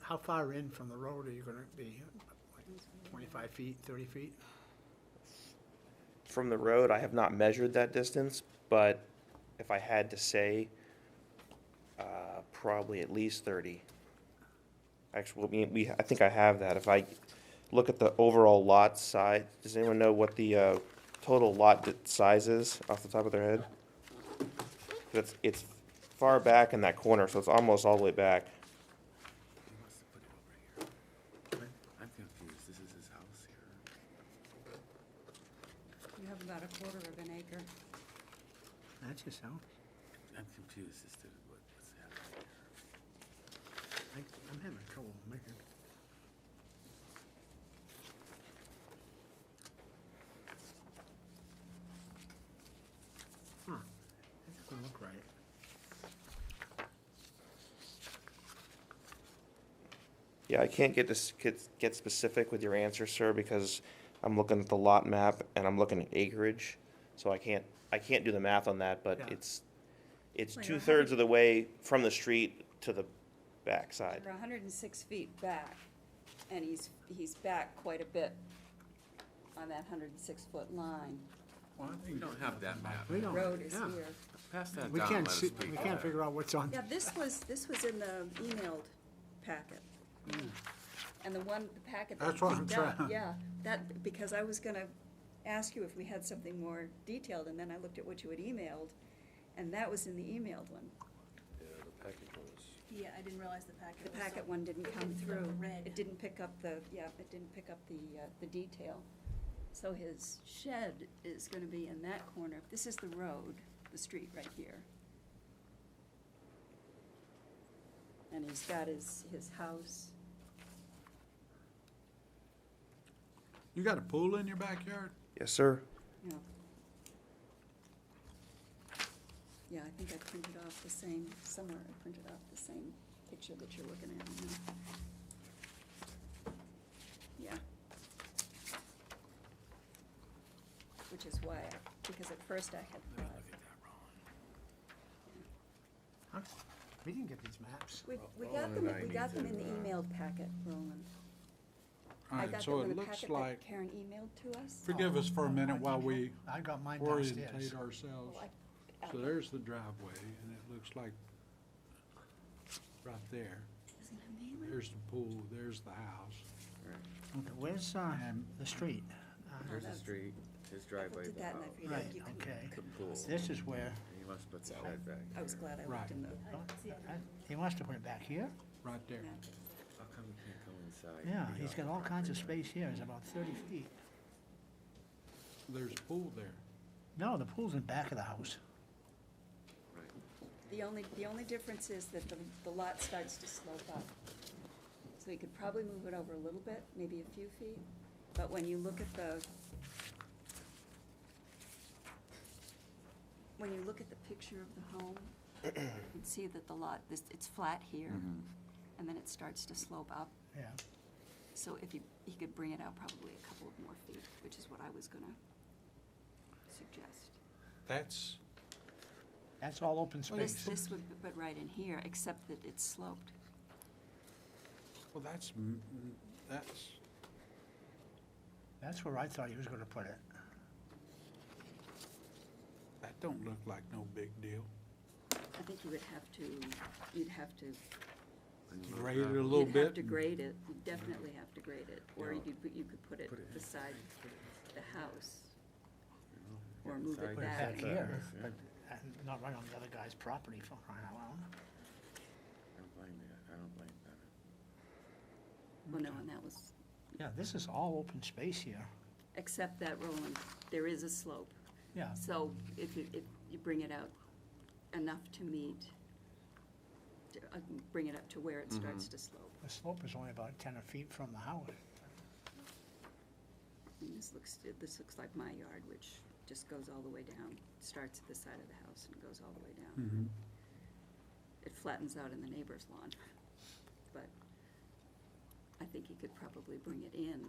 how far in from the road are you gonna be? Like Twenty-five feet, thirty feet? From the road, I have not measured that distance, but if I had to say, uh, probably at least thirty. Actually, we, we, I think I have that. If I look at the overall lot size, does anyone know what the, uh, total lot di- size is off the top of their head? That's, it's far back in that corner, so it's almost all the way back. I'm confused, this is his house here. You have about a quarter of an acre. That's just how, I'm confused as to what, what's happening here. I, I'm having trouble making. Huh, that doesn't look right. Yeah, I can't get this, get, get specific with your answer, sir, because I'm looking at the lot map and I'm looking at acreage. So I can't, I can't do the math on that, but Yeah. it's, it's Well, you're a two-thirds hundred- of the way from the street to the backside. You're hundred and six feet back, and he's, he's back quite a bit on that hundred and six foot line. We don't have that map. We don't, Road is yeah. here. Pass that We down, let can't us see, speak we to can't that. figure out what's on, Yeah, this was, this was in the emailed packet. And the one, the packet that That's what you I'm picked up, trying- yeah, that, because I was gonna ask you if we had something more detailed, and then I looked at what you had emailed, and that was in the emailed one. Yeah, I didn't realize the packet The was. packet one didn't come The through. red. It didn't pick up the, yeah, it didn't pick up the, uh, the detail. So his shed is gonna be in that corner. This is the road, the street right here. And he's got his, his house. You got a pool in your backyard? Yes, sir. Yeah. Yeah, I think I printed off the same, somewhere I printed off the same picture that you're looking at now. Yeah. Which is why, I- because at first I had Let me thought, look at that wrong. huh? We didn't get these maps. we, we got Roland them, and I we got need them in the to, uh, emailed packet, Roland. I Alright, got so them in it the looks packet that like, Karen emailed to us. forgive us for a minute while we I got mine downstairs. orientate ourselves. Well, Oh, I- So there's the driveway, and it looks like right there, Doesn't have name on it? there's the pool, there's the house. Okay, where's, uh, the street? Uh, Here's the street, his Oh, I driveway, looked at the that and house, I figured Right, you couldn't- okay. the pool, This is where, he must put the shed back I was here. glad I Right. looked in the. I didn't see it. uh, he wants to put it back here? Right there. packet. How come you can't go inside? Yeah, We he's are got all kinds of property space here, it's about thirty feet. There's a pool there. No, the pool's in back of the house. right- right. The only, the only difference is that the, the lot starts to slope up. So you could probably move it over a little bit, maybe a few feet, but when you look at the, when you look at the picture of the home, you can see that the lot, this, it's flat here, and then it starts to slope up. Yeah, So if you, he could bring it out probably a couple of more feet, which is what I was gonna suggest. That's, that's all open Well, this, space. this would, but right in here, except that it's sloped. well, that's, m- m- that's, That's where I thought he was gonna put it. that don't look like no big deal. I think you would have to, you'd have to. And you Grade it a look little You'd bit. have to grade it, you definitely have to grade it, or you Yeah. could, put- you could put it Put it in. beside the house. up- or move it Side Put it Back. back yard, here, yeah. but uh, not right on the other guy's property for crying out loud. I don't blame you, I don't blame them. Well, no, and that was, Yeah, this is all open space here. except that Roland, there is a slope. Yeah, So if you, if you bring it out enough to meet, to, uh, bring it up to where it starts to slope. the slope is only about ten feet from the house. And this looks, this looks like my yard, which just goes all the way down, starts at the side of the house and goes all the way Hmm. down. Mm-hmm. It flattens out in the neighbor's lawn, but I think he could probably bring it in,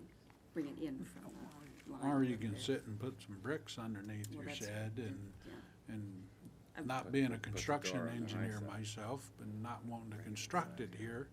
bring it in from the line. Or you can there. sit and put some bricks underneath Well, your that's- shed and, Yeah. and Um, not Put- being put- a put the construction door on the high engineer side. myself and not wanting to construct it here,